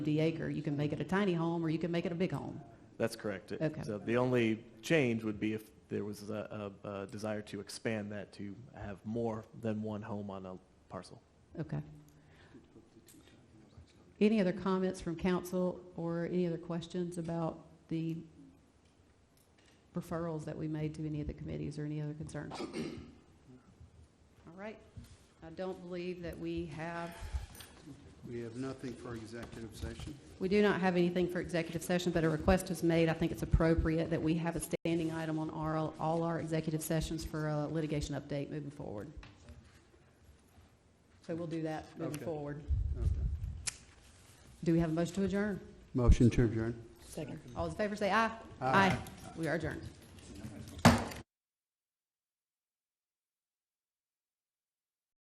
the acre. You can make it a tiny home or you can make it a big home. That's correct. It- Okay. So the only change would be if there was a, a, a desire to expand that to have more than one home on a parcel. Okay. Any other comments from council or any other questions about the referrals that we made to any of the committees or any other concerns? All right. I don't believe that we have, We have nothing for executive session. we do not have anything for executive session, but a request was made. I think it's appropriate that we have a standing item on our, all our executive sessions for a litigation update moving forward. So we'll do that moving Okay. forward. Okay. Do we have a motion to adjourn? Motion to adjourn. All those in favor say aye. Aye. We are adjourned.